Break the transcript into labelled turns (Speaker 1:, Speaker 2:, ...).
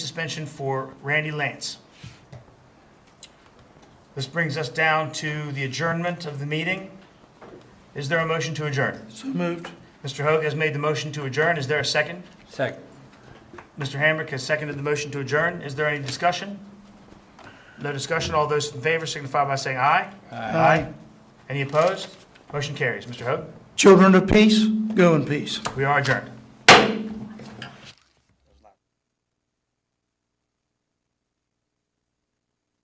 Speaker 1: suspension for Randy Lance. This brings us down to the adjournment of the meeting. Is there a motion to adjourn?
Speaker 2: So moved.
Speaker 1: Mr. Hoag has made the motion to adjourn. Is there a second?
Speaker 3: Second.
Speaker 1: Mr. Hamrick has seconded the motion to adjourn. Is there any discussion? No discussion. All those in favor signify by saying aye.
Speaker 2: Aye.
Speaker 1: Any opposed? Motion carries. Mr. Hoag,
Speaker 2: Children of peace, go in peace.
Speaker 1: we are adjourned.